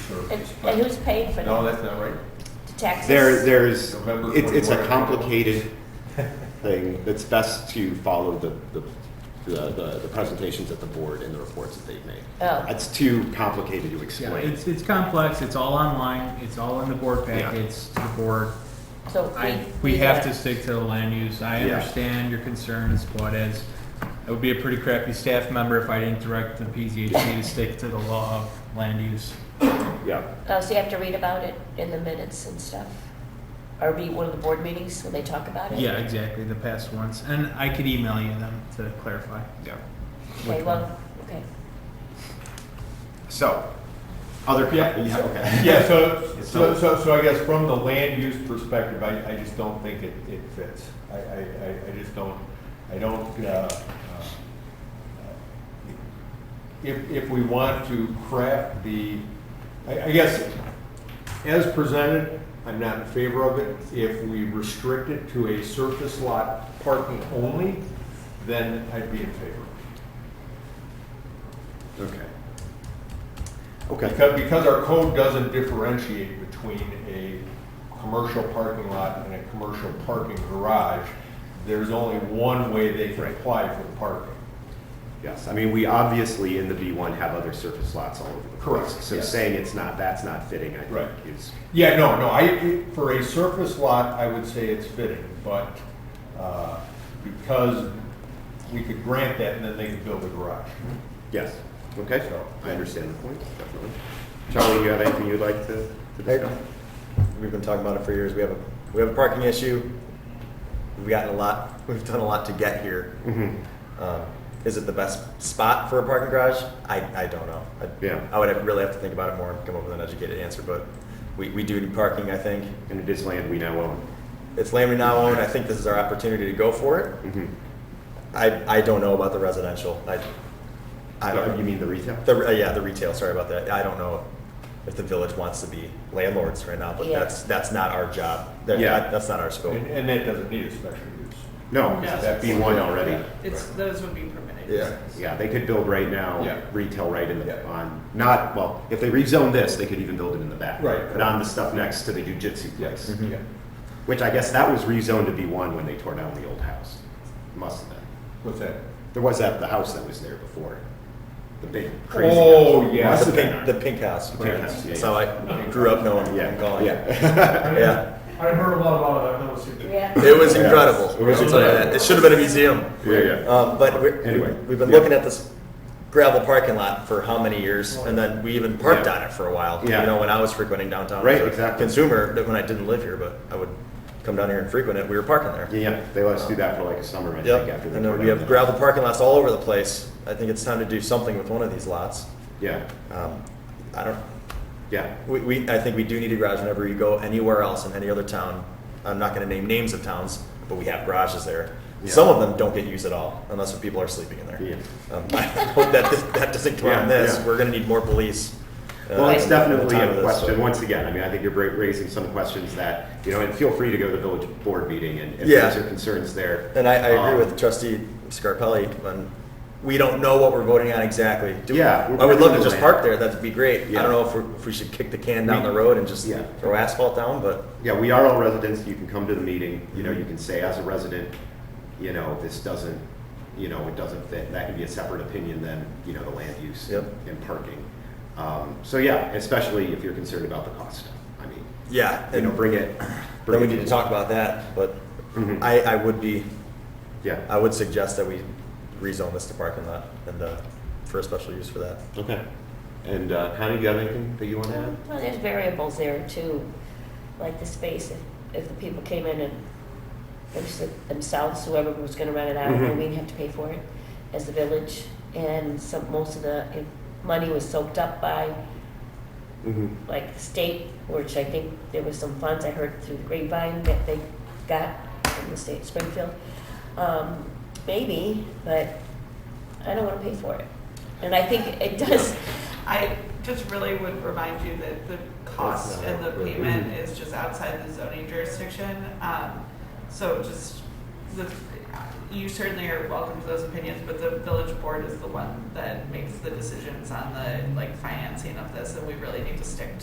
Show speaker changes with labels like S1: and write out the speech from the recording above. S1: And
S2: education
S1: and
S2: plan.
S1: who's paying for
S2: No,
S1: that?
S2: that's not right.
S1: The taxes?
S3: There, there's,
S2: November
S3: it's, it's a
S2: 21.
S3: complicated thing. It's best to follow the, the, the, the- the presentations at the board and the reports that they've made.
S1: Oh.
S3: It's too complicated to
S4: Yeah,
S3: explain.
S4: it's, it's complex, it's all online, it's all in the board
S3: Yeah.
S4: packets, to the board.
S1: So
S4: I,
S1: we.
S4: we have to stick to the land use, I
S3: Yeah.
S4: understand your concerns, but as, I would be a pretty crappy staff member if I didn't direct the PZHC to stick to the law of land use.
S3: Yeah,
S1: Oh, so you have to read about it in the minutes and stuff? Or be at one of the board meetings when they talk about it?
S4: Yeah, exactly, the past ones, and I could email you them to clarify.
S3: yeah.
S1: Okay, well, okay.
S3: So, other, yeah,
S2: Yeah.
S3: okay.
S2: Yeah, so,
S3: It's
S2: so,
S3: not-
S2: so, so I guess from the land use perspective, I, I just don't think it, it fits. I, I, I, I just don't, I don't, uh, uh, if, if we want to craft the, I, I guess, as presented, I'm not in favor of it. If we restrict it to a surface lot parking only, then I'd be in favor.
S3: Okay. Okay.
S2: Because, because our code doesn't differentiate between a commercial parking lot and a commercial parking garage, there's only one way they can
S3: Right.
S2: apply for parking.
S3: Yes, I mean, we obviously in the B1 have other surface lots all over the
S2: Correct,
S3: place. So
S2: yes.
S3: saying it's not, that's not fitting, I
S2: Right.
S3: think is,
S2: Yeah, no, no, I, for a surface lot, I would say it's fitting, but, uh, because we could grant that and then they could build a garage.
S3: yes, okay.
S2: So-
S3: I understand the point, definitely. Charlie, you have anything you'd like to to
S5: Hey,
S3: discuss?
S5: We've been talking about it for years. We have a, we have a parking issue. We've gotten a lot, we've done a lot to get here.
S3: Mhm.
S5: Um, Is it the best spot for a parking garage? I, I don't know. I-
S3: Yeah.
S5: I would have- really have to think about it more and come up with an educated answer, but we, we do need parking, I think.
S3: And it is land we now own.
S5: It's land we now own. I think this is our opportunity to go for it.
S3: Mhm.
S5: I, I don't know about the residential. I, I
S3: No,
S5: don't.
S3: You mean the retail?
S5: The, uh, yeah, the retail, sorry about that. I don't know if the village wants to be landlords right now, but
S1: Yeah.
S5: that's, that's not our job. That-
S3: Yeah.
S5: that- That's not our scope.
S2: And, and that doesn't need a special use.
S3: No,
S6: No.
S3: that's B1 already.
S6: It's, those would be permitted.
S5: Yeah.
S6: uses.
S3: Yeah, they could build right
S2: Yeah.
S3: now, retail right in the,
S2: Yeah.
S3: on, not, well, if they rezone this, they could even build it in the back.
S2: Right.
S3: But on the stuff next to the jujitsu
S2: Yes, Mm-hmm.
S3: place,
S2: yeah.
S3: which I guess that was rezoned to B1 when they tore down the old house. Must have been.
S2: What's that?
S3: There was that, the house that was there before, the big crazy. house.
S2: Oh, yeah.
S3: Must
S5: The
S3: have been
S5: pink, the
S3: ours.
S5: pink house.
S3: The pink house, yeah,
S5: That's how I grew up knowing
S3: Yeah,
S5: and calling it.
S3: yeah.
S5: Yeah.
S7: I heard a lot about it, I've never seen it.
S1: Yeah.
S5: It was
S3: Yeah.
S5: incredible.
S3: It was
S5: I'll tell you that.
S3: incredible.
S5: It should have been a museum.
S3: Yeah, yeah.
S5: Um, but we
S3: Anyway.
S5: we've been
S3: Yeah.
S5: looking at this gravel parking lot for how many years? And then we even parked
S3: Yeah.
S5: on it for a while.
S3: Yeah.
S5: You know, when I was frequenting downtown.
S3: Right,
S5: as a
S3: exactly.
S5: Consumer, that when I didn't live here, but I would come down here and frequent it, we were parking there.
S3: Yeah, yeah, they let us do that for like a summer, I think,
S5: Yep.
S3: after. they
S5: And
S3: tore
S5: then we
S3: down
S5: have
S3: the-
S5: gravel parking lots all over the place. I think it's time to do something with one of these lots.
S3: Yeah,
S5: Um, I don't,
S3: yeah,
S5: we, we, I think we do need a garage whenever you go anywhere else in any other town. I'm not gonna name names of towns, but we have garages there.
S3: Yeah.
S5: Some of them don't get used at all, unless when people are sleeping in there.
S3: yeah.
S5: Um, I hope that, this- that doesn't come
S3: Yeah,
S5: on this,
S3: yeah.
S5: we're gonna need more police. uh,
S3: Well, it's
S5: in the
S3: definitely
S5: time
S3: a
S5: of this,
S3: question,
S5: but-
S3: once again, I mean, I think you're ra- raising some questions that, you know, and feel free to go to the village board meeting and if
S5: Yeah.
S3: there's your concerns there.
S5: And I, I
S3: Um,
S5: agree with trustee Scarpelli, on we don't know what we're voting on exactly. Do we-
S3: Yeah, we're
S5: I would love to
S3: voting
S5: just
S3: on
S5: park there, that'd be great. I
S3: Yeah.
S5: don't know if, we're- if we should kick the can down
S3: We-
S5: the road and just
S3: Yeah.
S5: throw asphalt down, but.
S3: Yeah, we are all residents, you can come to the meeting, you know, you can say, as a resident, you know, this doesn't, you know, it doesn't fit, that can be a separate opinion than, you know, the land use
S5: Yep.
S3: and parking. Um, So yeah, especially if you're concerned about the cost, I mean,
S5: Yeah,
S3: you know,
S5: and
S3: bring it. bring
S5: then we
S3: it
S5: need to talk about that, but
S3: Mhm.
S5: I, I would be,
S3: Yeah,
S5: Mm-hmm. I would suggest that we rezone this to parking lot and, uh, for a special use for that.
S3: okay. And uh, Connie, do you have anything that you want to add?
S1: Well, there's variables there too, like the space, if, if the people came in and them- themselves, whoever was gonna rent it out,
S3: Mhm.
S1: and we'd have to pay for it as the village, and some, most of the eh, money was soaked up by
S3: Mm-hmm.
S1: like the state, which I think there was some funds I heard through the grapevine that they got from the state of Springfield. Um, maybe, but I don't wanna pay for it. And I think it does,
S6: I just really would remind you that the cost and the payment is just outside the zoning jurisdiction. Um, So just, the- you certainly are welcome to those opinions, but the village board is the one that makes the decisions on the, like, financing of this, and we really need to stick